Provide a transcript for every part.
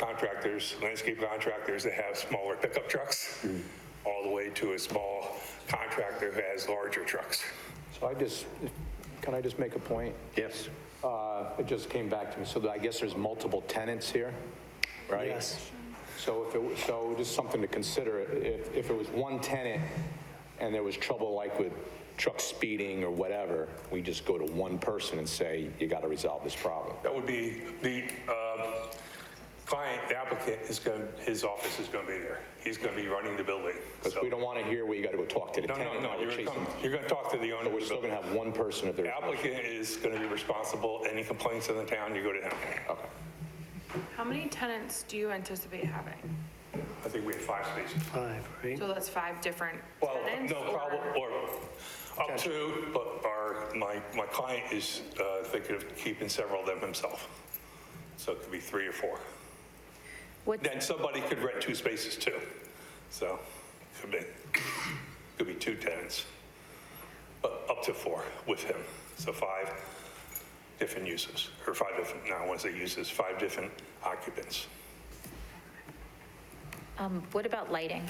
contractors, landscape contractors that have smaller pickup trucks, Mm. all the way to a small contractor who has larger trucks. So I just, can I just make a point? Yes. Uh, It just came back to me, so I guess there's multiple tenants here, right? Yes. So if it, was- so just something to consider, if, if it was one tenant and there was trouble like with truck speeding or whatever, we just go to one person and say, you got to resolve this problem. That would be, the um, client, the applicant is going, his office is going to be there. He's going to be running the building. Because So- we don't want to hear where you got to go talk to the No, tenant. no, no, while you're we're going to chasing- come, you're going to talk to the owner. of We're the still going building. to have one person if The there's, applicant is going to be responsible. Any complaints to the town, you go to him. okay. How many tenants do you anticipate having? I think we have five spaces. Five, right? So that's five different Well, tenants? no, probably, or up to, but our, my, my client is uh, thinking of keeping several of them himself. So it could be three or four. What's, Then somebody could rent two spaces too. So could be, could be two tenants, but up to four with him. So five different uses, or five different, now I want to say uses, five different occupants. um, what about lighting?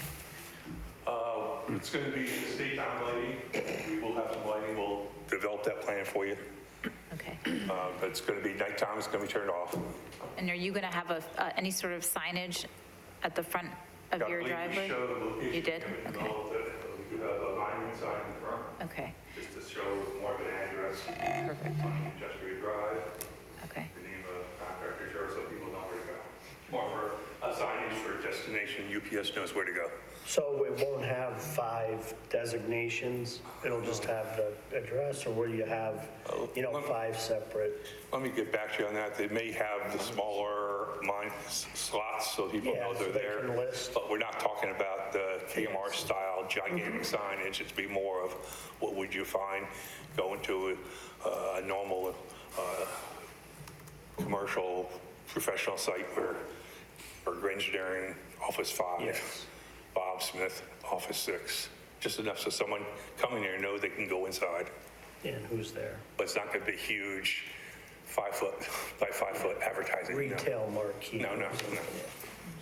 It's going to be state on lighting. We will have some lighting. We'll develop that plan for you. Okay. Uh, but It's going to be nighttime. It's going to be turned off. And are you going to have a, uh, any sort of signage at the front of I your believe we driveway? showed the location You did? in the Okay, middle of the- We do have a monument sign in the front, okay, just to show more of an address perfect, on Industrial Drive, okay. the name of contractor, sure, so people know where to go. More for a signage for destination, UPS knows where to go. So it won't have five designations? It'll just have the address, or will you have, Oh, you know, five separate? Let me get back to you on that. They may have the smaller mine s- slots so people Yeah, know they're so they there. can list. But we're not talking about the KMR style gigantic Mm-hmm. signage. It'd be more of what would you find going to a, a normal, uh, commercial professional site where, or engineering, office five, Yes. Bob Smith, office six. Just enough so someone coming there know they can go inside And who's there? but it's not going to be huge five-foot by five-foot advertising. no. Retail marquee? No, no, no.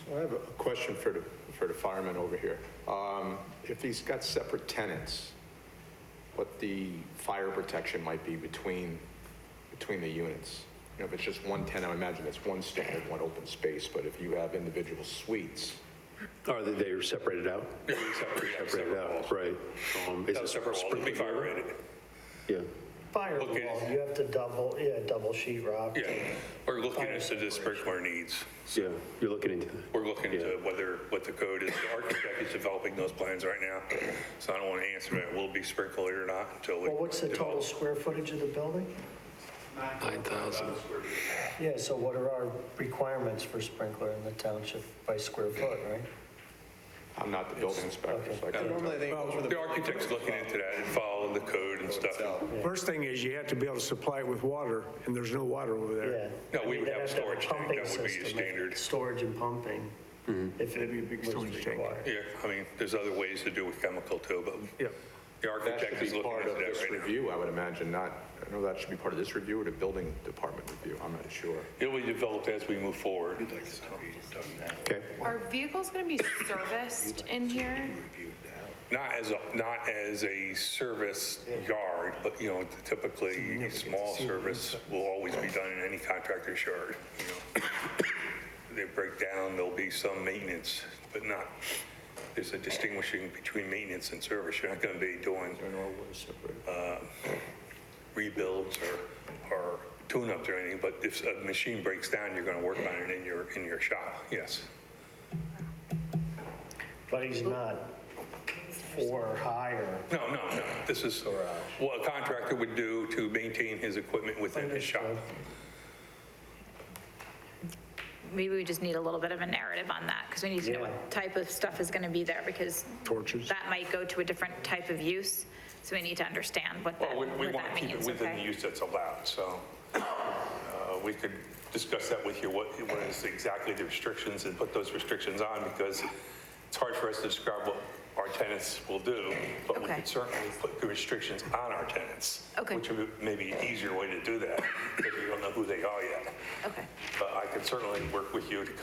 So I have a question for the, for the fireman over here. Um, If he's got separate tenants, what the fire protection might be between, between the units? You know, if it's just one tenant, I imagine that's one standard, one open space, but if you have individual suites, Are Oh, they, they are separated out? Separated out, right. Um, is Have a it separate wall, it'll be sprinkled? fire-rated. Yeah, Firewall, Okay. you have to double, yeah, double sheet rock. Yeah, we're looking into the sprinkler needs. yeah, you're looking into that. We're looking Yeah. to whether, what the code is. The architect is developing those plans right now, so I don't want to answer that, will it be sprinkled or not until. we Well, what's the total develop. square footage of the building? 9,000. Yeah, so what are our requirements for sprinkler in the township by square foot, right? I'm not the building inspector, so I can't. Normally, they go for The architect's looking into that and following the code and stuff. First thing is you have to be able to supply it with water, and there's no water over Yeah. there. No, I we mean, would they'd have a to storage tank. pumping That would be a system, like, standard. Mm-hmm. Storage and pumping, if it was storage tank. required. Yeah, I mean, there's other ways to do with chemical too, but Yep. the That architect should is be looking part into of that this right now. review, I would imagine, not, I know that should be part of this review or the building department review, I'm not sure. It'll be developed as we move forward. Okay. Are vehicles going to be serviced in here? Not as, a not as a service yard, but, you know, typically, a small service will always be done in any contractor's yard, you know. They break down, there'll be some maintenance, but not, there's a distinguishing between maintenance and service. You're not going to be doing uh, rebuilds or, or tune-ups or anything, but if a machine breaks down, you're going to work on it in your, in your shop, yes. But he's not four or higher. No, no, no. This is uh, what a contractor would do to maintain his equipment within his shop. Maybe we just need a little bit of a narrative on that, because we need to know what type of stuff is going to be there, because Torches. that might go to a different type of use, so we need to understand what that, Well, we, what we want that to keep it means, within the okay? use that's allowed, so uh, we could discuss that with you, what, what is exactly the restrictions and put those restrictions on, because it's hard for us to describe what our tenants will do, but we Okay. could certainly put the restrictions on our tenants. Okay. Which would be maybe an easier way to do that, because we don't know who they are yet. Okay. But I could certainly work with you to